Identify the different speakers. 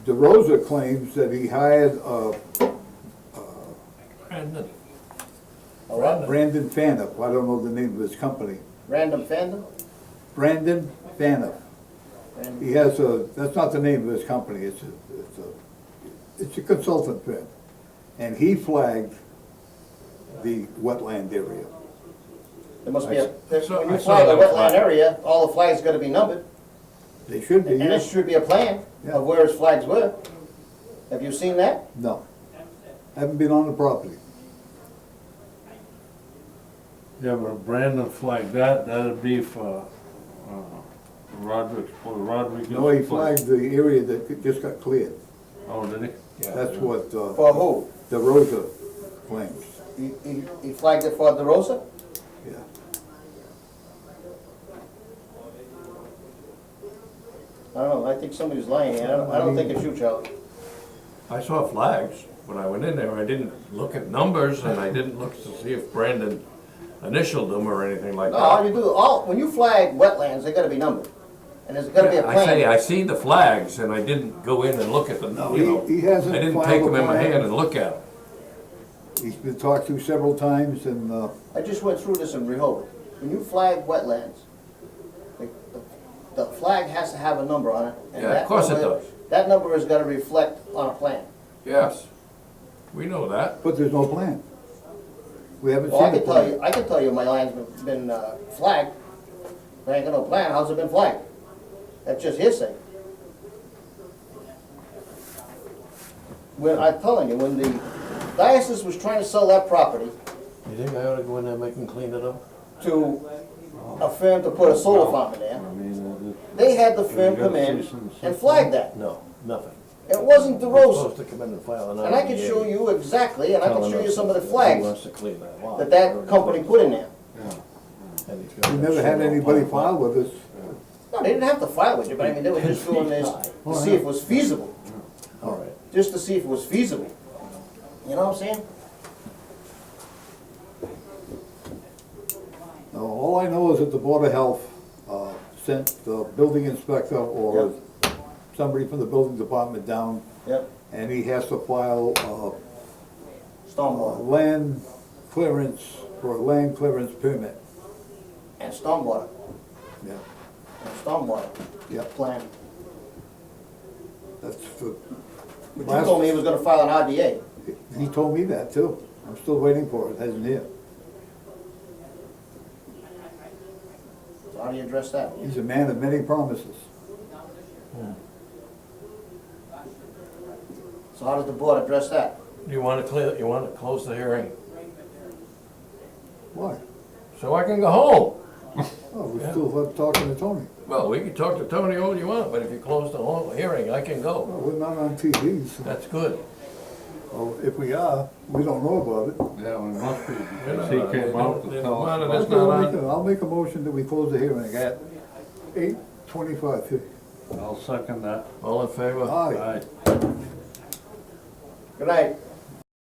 Speaker 1: DeRosa claims that he hired, uh,
Speaker 2: Brandon,
Speaker 3: A what?
Speaker 1: Brandon Fanup, I don't know the name of his company,
Speaker 3: Random fandom?
Speaker 1: Brandon Fanup.
Speaker 3: Random-
Speaker 1: He has a, that's not the name of his company, it's a, it's a, it's a consultant firm. And he flagged the wetland area.
Speaker 3: There must be a, there's-
Speaker 2: So-
Speaker 3: when
Speaker 2: I
Speaker 3: you
Speaker 2: saw
Speaker 3: flag a
Speaker 2: that
Speaker 3: wetland
Speaker 2: flag.
Speaker 3: area, all the flags gotta be numbered,
Speaker 1: They should be,
Speaker 3: and there
Speaker 1: yes,
Speaker 3: should be a plan
Speaker 1: Yeah.
Speaker 3: of where his flags were. Have you seen that?
Speaker 1: no. Haven't been on the property.
Speaker 4: Yeah, but a brand of like that, that'd be for, uh, Roderick, for Rodriguez.
Speaker 1: No, he
Speaker 4: place.
Speaker 1: flagged the area that just got cleared.
Speaker 4: Oh, did he?
Speaker 1: That's what, uh,
Speaker 3: For who?
Speaker 1: DeRosa claims,
Speaker 3: He, he, he flagged it for DeRosa?
Speaker 1: yeah.
Speaker 3: I don't know, I think somebody's lying, I don't, I don't think it's you, Charlie.
Speaker 2: I saw flags when I went in there. I didn't look at numbers and I didn't look to see if Brandon initialed them or anything like
Speaker 3: No, all
Speaker 2: that.
Speaker 3: you do, all, when you flag wetlands, they gotta be numbered, and there's gotta be a
Speaker 2: I say,
Speaker 3: plan.
Speaker 2: I see the flags and I didn't go in and look at them,
Speaker 1: No,
Speaker 2: you
Speaker 1: he-
Speaker 2: know.
Speaker 1: he hasn't
Speaker 2: I didn't
Speaker 1: filed
Speaker 2: take
Speaker 1: a
Speaker 2: them in my
Speaker 1: plan.
Speaker 2: hand and look at them.
Speaker 1: He's been talked to several times and, uh,
Speaker 3: I just went through this in Rehoboth. When you flag wetlands, the, the- the flag has to have a number on it. and
Speaker 2: Yeah, of
Speaker 3: that
Speaker 2: course it
Speaker 3: number-
Speaker 2: does.
Speaker 3: That number is gonna reflect on a plan.
Speaker 2: Yes, we know that.
Speaker 1: but there's no plan. We haven't
Speaker 3: Well, I
Speaker 1: seen a
Speaker 3: can tell
Speaker 1: plan.
Speaker 3: you, I can tell you my land's been- been uh, flagged, but I ain't got no plan, how's it been flagged? That's just hearsay. When, I'm telling you, when the diocese was trying to sell that property
Speaker 5: You think I ought to go in there and make them clean it up?
Speaker 3: to a firm to put a solar farm in
Speaker 5: I
Speaker 3: there,
Speaker 5: mean, uh,
Speaker 3: they had the firm come in and flag that.
Speaker 5: no, nothing.
Speaker 3: It wasn't
Speaker 5: We're
Speaker 3: DeRosa,
Speaker 5: supposed to come in and file an
Speaker 3: and I can
Speaker 5: IDA
Speaker 3: show you exactly, and I can
Speaker 5: telling
Speaker 3: show you
Speaker 5: us
Speaker 3: some of the
Speaker 5: who
Speaker 3: flags
Speaker 5: wants to clean that lot.
Speaker 3: that that company put in there.
Speaker 5: And it's got
Speaker 1: We
Speaker 5: that
Speaker 1: never had
Speaker 5: shit on
Speaker 1: anybody
Speaker 5: top.
Speaker 1: file with us.
Speaker 3: No, they didn't have to file with you, but I mean, they were just doing this to see if it was feasible,
Speaker 5: All right.
Speaker 3: just to see if it was feasible. You know what I'm saying?
Speaker 1: Now, all I know is that the Board of Health uh, sent the building inspector or somebody from the building department down,
Speaker 3: Yep,
Speaker 1: and he has to file a
Speaker 3: stormwater,
Speaker 1: land clearance, for a land clearance permit.
Speaker 3: and stormwater,
Speaker 1: Yeah,
Speaker 3: and stormwater
Speaker 1: yeah,
Speaker 3: plan.
Speaker 1: that's for,
Speaker 3: But you
Speaker 1: Last-
Speaker 3: told me he was gonna file an RDA.
Speaker 1: he told me that too. I'm still waiting for it, hasn't he?
Speaker 3: So how do you address that?
Speaker 1: He's a man of many promises.
Speaker 3: So how does the board address that?
Speaker 2: You wanna clear, you wanna close the hearing,
Speaker 1: Why?
Speaker 2: so I can go home.
Speaker 1: Oh, we still have talking to Tony.
Speaker 2: Well, we can talk to Tony all you want, but if you close the whole hearing, I can go.
Speaker 1: Well, we're not on TV, so
Speaker 2: That's good.
Speaker 1: oh, if we are, we don't know about it.
Speaker 4: Yeah, well, it must be,
Speaker 2: You're
Speaker 4: because
Speaker 2: not
Speaker 4: he
Speaker 2: on it.
Speaker 4: came out
Speaker 2: Then
Speaker 4: to tell
Speaker 2: why
Speaker 4: us.
Speaker 2: did
Speaker 4: about
Speaker 2: That's
Speaker 1: Okay, I'll
Speaker 2: not
Speaker 1: make a- I'll make a motion that we close the hearing at eight twenty-five.
Speaker 4: it. I'll second that.
Speaker 2: All in favor?
Speaker 1: Aye.
Speaker 4: Aye.
Speaker 3: Good night.